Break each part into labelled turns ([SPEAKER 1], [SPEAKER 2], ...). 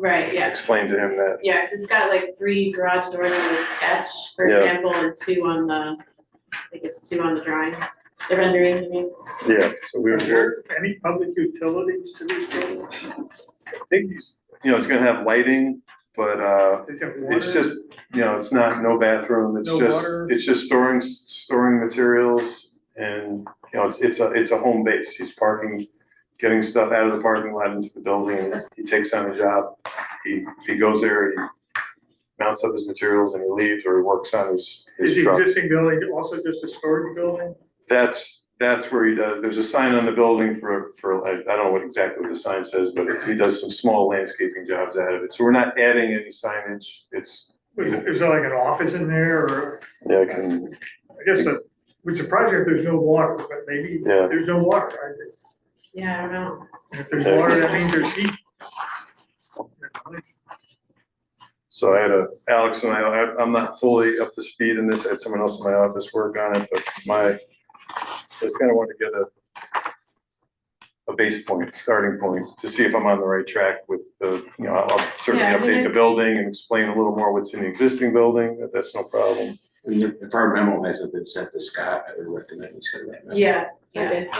[SPEAKER 1] Right, yeah,
[SPEAKER 2] explain to him that,
[SPEAKER 1] yeah, it it's got like three garage doors on the sketch, for
[SPEAKER 2] Yeah.
[SPEAKER 1] example, and two on the, I think it's two on the drawings, the renderings, I mean.
[SPEAKER 2] yeah, so we
[SPEAKER 3] Are
[SPEAKER 2] were here.
[SPEAKER 3] there any public utilities to these buildings?
[SPEAKER 2] I think he's, you know, it's gonna have lighting, but, uh,
[SPEAKER 3] They got water?
[SPEAKER 2] it's just, you know, it's not, no bathroom, it's
[SPEAKER 3] No
[SPEAKER 2] just,
[SPEAKER 3] water?
[SPEAKER 2] it's just storing, storing materials and, you know, it's, it's a, it's a home base, he's parking, getting stuff out of the parking lot into the building, and he takes on a job, he, he goes there, he mounts up his materials and he leaves, or he works on his, his
[SPEAKER 3] Is the
[SPEAKER 2] truck.
[SPEAKER 3] existing building also just a storage building?
[SPEAKER 2] That's, that's where he does, there's a sign on the building for, for, I, I don't know what exactly what the sign says, but it's- he does some small landscaping jobs out of it, so we're not adding any signage, it's,
[SPEAKER 3] Is, is there like an office in there or,
[SPEAKER 2] yeah, I can,
[SPEAKER 3] I guess, that would surprise you if there's no water, but maybe
[SPEAKER 2] Yeah.
[SPEAKER 3] there's no water. right?
[SPEAKER 1] Yeah, I don't know,
[SPEAKER 3] And If there's
[SPEAKER 2] Yeah.
[SPEAKER 3] water, that means there's heat.
[SPEAKER 2] so I had a, Alex and I, I, I'm not fully up to speed in this, I had someone else in my office work on it, but my, I just kinda wanted to get a a base point, starting point, to see if I'm on the right track with the, you know, I'll certainly
[SPEAKER 1] Yeah, I mean,
[SPEAKER 2] update the
[SPEAKER 1] it-
[SPEAKER 2] building and explain a little more what's in the existing building, that- that's no problem.
[SPEAKER 4] And If if our memo hasn't been sent to Scott, I would recommend we send that. memo.
[SPEAKER 1] yeah,
[SPEAKER 5] Yeah.
[SPEAKER 1] okay.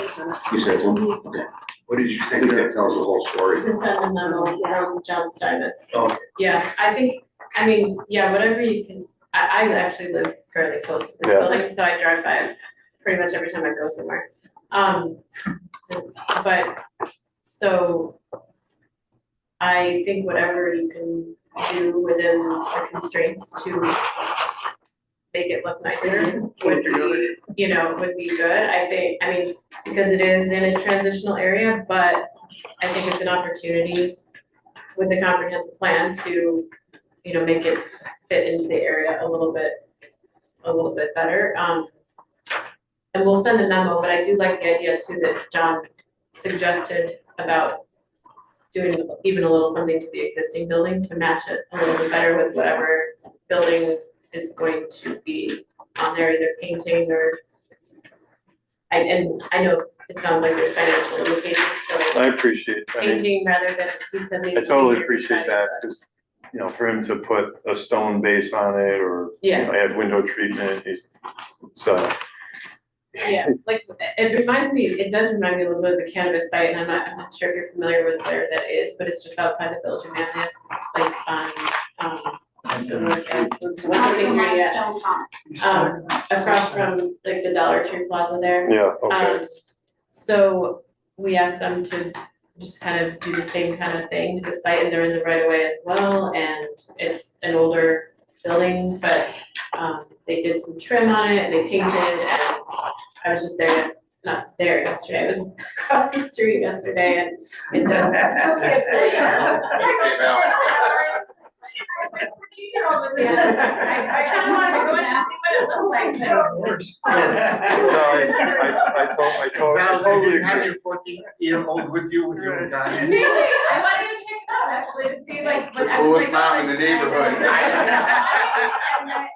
[SPEAKER 4] You sent one? Okay. What did you think? That tells the whole story.
[SPEAKER 1] This is send a um, memo from John Steinmetz.
[SPEAKER 4] Okay.
[SPEAKER 1] Yeah, I think, I mean, yeah, whatever you can, I, I actually live fairly close to this
[SPEAKER 2] Yeah.
[SPEAKER 1] building, so I drive by it pretty much every time I go somewhere. Um, but, so I think whatever you can do within the constraints to make it look nicer would be, you know, would be good, I think, I mean, because it is in a transitional area, but I think it's an opportunity with the comprehensive plan to, you know, make it fit into the area a little bit, a little bit better. Um, and we'll send a memo, but I do like the idea too that John suggested about doing even a little something to the existing building to match it a little bit better with whatever building is going to be on there, either painting or I, and I know it sounds like there's financial limitations, so
[SPEAKER 2] I appreciate, I mean,
[SPEAKER 1] painting rather than he said
[SPEAKER 2] I totally appreciate that, because, you know, for him to put a stone base on it or, you
[SPEAKER 1] Yeah.
[SPEAKER 2] know, add window treatment, he's, it's, uh.
[SPEAKER 1] Yeah, like, it reminds me, it does remind me a little bit of the cannabis site, and I'm not, I'm not sure if you're familiar with where that is, but it's just outside the village of Manlius, like, on, um, so like, uh,
[SPEAKER 5] Not
[SPEAKER 1] Nothing
[SPEAKER 5] even
[SPEAKER 1] here yet.
[SPEAKER 5] limestone pond.
[SPEAKER 1] um, across from, like, the Dollar Tree Plaza there.
[SPEAKER 2] Yeah, okay,
[SPEAKER 1] Um, so we asked them to just kind of do the same kind of thing to the site and they're in the right of way as well and it's an older building, but um they did some trim on it and they painted and I was just there, yes- not there yesterday, I was across the street yesterday and it does I kind of wanted to go and ask you what it looked like, but-
[SPEAKER 3] Worse.
[SPEAKER 2] No, I, I, I told, I told, I totally agree.
[SPEAKER 6] your fourteen year old with you when
[SPEAKER 3] you were
[SPEAKER 6] dying.
[SPEAKER 1] Really? I wanted to check it out actually to see like
[SPEAKER 4] The
[SPEAKER 1] what I was
[SPEAKER 4] coolest
[SPEAKER 1] like,
[SPEAKER 4] mom
[SPEAKER 1] oh,
[SPEAKER 4] in the
[SPEAKER 1] I-
[SPEAKER 4] neighborhood.
[SPEAKER 1] And I-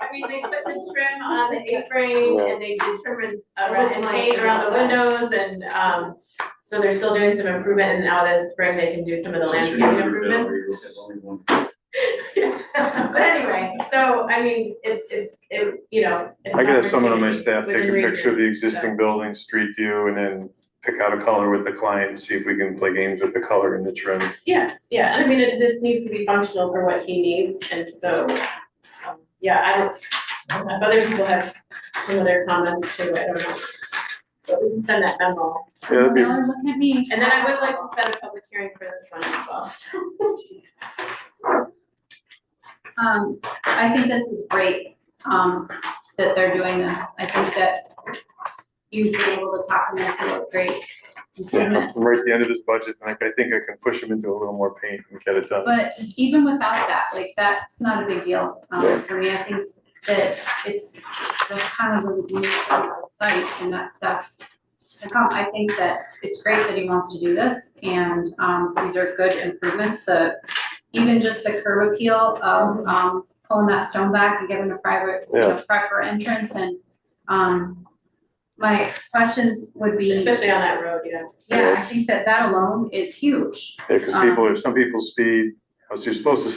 [SPEAKER 1] I mean, they put the trim on the A-frame and they did trim around and paint around the windows and um so they're still doing some improvement and now this spring they can do some of the landscaping improvements. But anyway, so I mean, it it it, you know, it's an
[SPEAKER 2] I could have someone on my
[SPEAKER 1] opportunity
[SPEAKER 2] staff take a
[SPEAKER 1] within
[SPEAKER 2] picture of the
[SPEAKER 1] reason,
[SPEAKER 2] existing building, street view, and then pick out a color with the client and see if we can play games with the color and the trim.
[SPEAKER 1] so- Yeah, yeah, and I mean, it this needs to be functional for what he needs and so um yeah, I don't If other people have some of their comments too, I don't know. But we can send that memo.
[SPEAKER 2] Yeah, that'd be,
[SPEAKER 5] No, Um, look at me.
[SPEAKER 1] And then I would like to set a public hearing for this one as well, so. jeez.
[SPEAKER 5] Um, I think this is great, um, that they're doing this. I think that you've been able to talk them into a great improvement.
[SPEAKER 2] yeah, I'm right at the end of this budget, and I, I think I can push him into a little more paint and get it done.
[SPEAKER 5] But even without that, like, that's not a big deal, um, for me, I think that it's, that's kind of a new site and that stuff. I com- I think that it's great that he wants to do this, and, um, these are good improvements, the, even just the curb appeal of, um, pulling that stone back and giving a private, you know, proper entrance and, um, my questions would be,
[SPEAKER 1] Especially on that road, yeah.
[SPEAKER 5] yeah, I think that that alone is huge.
[SPEAKER 2] Yeah, because people, if some people speed, So you're supposed to